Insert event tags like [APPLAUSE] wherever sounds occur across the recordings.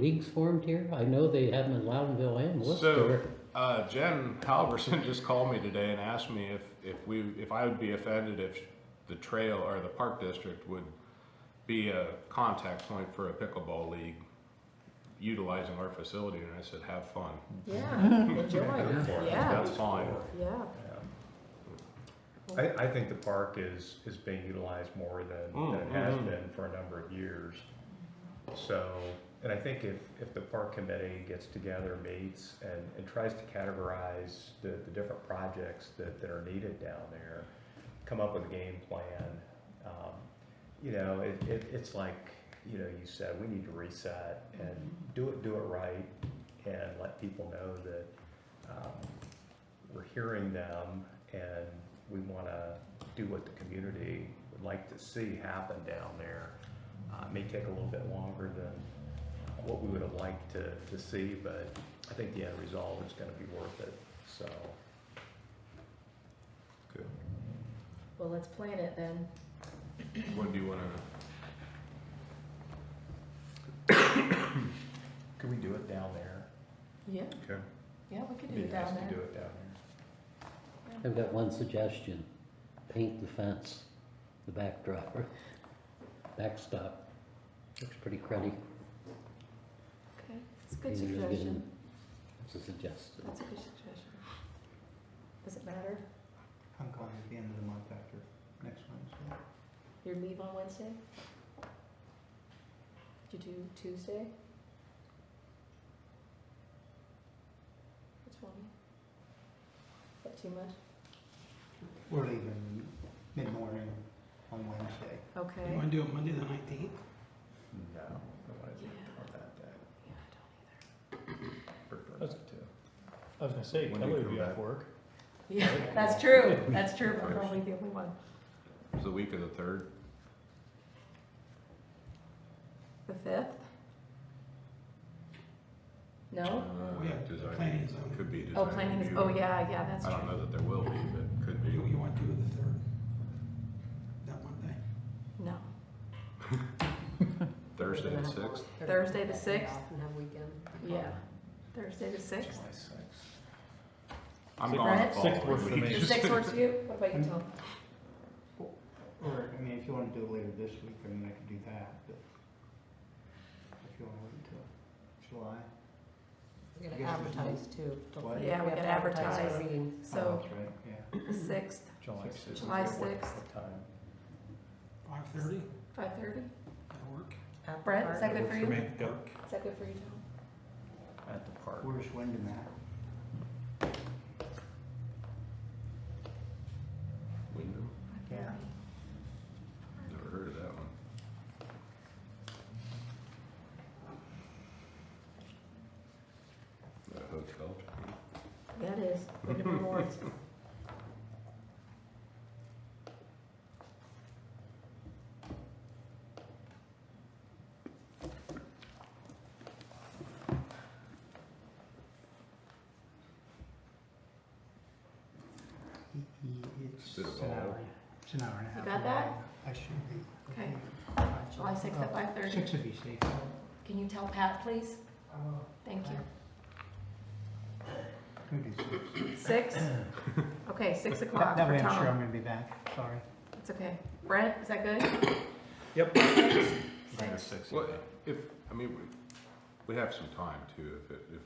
leagues formed here? I know they have them in Loudonville and So, Worcester. uh, Jen Halverson just called me today and asked me if, if we, if I would be offended if the trail or the park district would be a contact point for a pickleball league utilizing our facility, and I said, have fun. Yeah, enjoy, yeah, That's fine. yeah. I, I think the park is, is being utilized more than, than it has been for a number of years. So, and I think if, if the park committee gets together, meets, and, and tries to categorize the, the different projects that, that are needed down there, come up with a game plan, um, you know, it, it, it's like, you know, you said, we need to reset and do it, do it right, and let people know that, um, we're hearing them and we want to do what the community would like to see happen down there. Uh, it may take a little bit longer than uh, what we would have liked to, to see, but I think the end result is going to be worth it, so. Well, let's plan it then. When do you wanna, Could we do it down there? Yeah, okay, yeah, we could do Be it nice down to do there. it down there. I've got one suggestion. Paint the fence, the backdrop, or backstop. Looks pretty cruddy. Okay, it's a good Maybe we'll get suggestion. in- That's a suggestion. That's a good suggestion. Does it matter? I'm going at the end of the month after next Wednesday. Your leave on Wednesday? Did you do Tuesday? Which one? Is that too much? We're leaving mid-morning on Wednesday. Okay. You Yeah, want to do it Monday the nineteenth? No, I don't want to do it on that day. I Prefer not to. I was gonna say, When do Kelly you would come be off back? work. don't either. Yeah, that's true, that's true, I'm probably the only one. it's the week of the third, The fifth? uh, No? We have design- planning is on. Uh, could be Oh, design planning is, review. oh, yeah, yeah, that's I don't true. know that there will be, but could be. You, you want to do the third? That Monday? No. Thursday the sixth, Thursday the sixth? And have weekend. Yeah. Thursday the sixth? July sixth. I'm Sixth- gone the sixth works following for week. me. The sixth works [LAUGHS] for you? What about you, Tom? Or, I mean, if you wanna do it later this week, I mean, I could do that, but if you wanna wait until July. We're I gonna guess there's no- advertise too. Don't What? forget Yeah, we have gotta to advertise advertise. our meeting. Oh, So, That's right, Uh, yeah. the sixth, July Sixth. sixth. July What- what sixth. time? [LAUGHS] Five thirty? five thirty? That'll work. After Brett, park. is that good for you? Is Make it work. that good for you, Tom? At the park. Where's Wyndham at? Wyndham? Yeah. Never heard of that one. The hotel. That is, Wyndham Rewards. It's Bit of an hour, it's an hour and a half. You got that? I should be. Okay. Five- July sixth at uh, five thirty? Six would be safe. [LAUGHS] Can you tell Pat, please? Uh, Thank [LAUGHS] you. we do six. Six? Okay, [LAUGHS] six o'clock That for way I'm sure I'm Tom. gonna be back, sorry. It's okay. Brett, is that good? [COUGHS] Yep. Six. Six. Well, if, I mean, we, we have some time too, if, it if,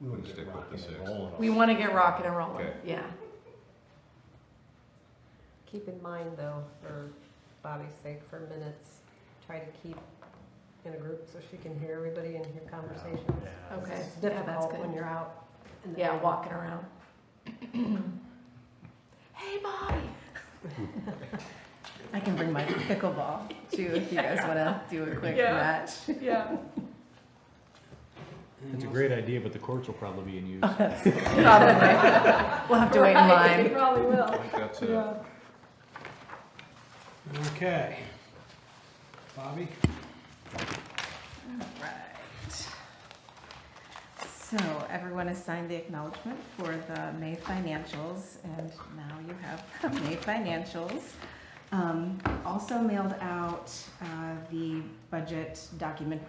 We wouldn't We'll get stick with the rocking and sixth. rolling on We want to get rocking and rolling, Okay. yeah. Keep in mind though, for Bobby's sake, for minutes, try to keep in a group so she can hear everybody and hear conversations. Yeah. Okay, It's yeah, that's difficult good. when you're out. in the Yeah, field. walking around. [CLEARS THROAT] Hey, Bobby. I can bring my pickleball too if you guys want to do a quick Yeah. match. [LAUGHS] Yeah. It's a great idea, but the courts will probably be in use. Probably. we'll have to wait in Right, You line. probably I Oh, will. think [LAUGHS] that's it. Yeah. Okay. Bobby? Right. So everyone has signed the acknowledgement [LAUGHS] for the May financials, and now you have the May financials. Um, also mailed out, uh, the budget document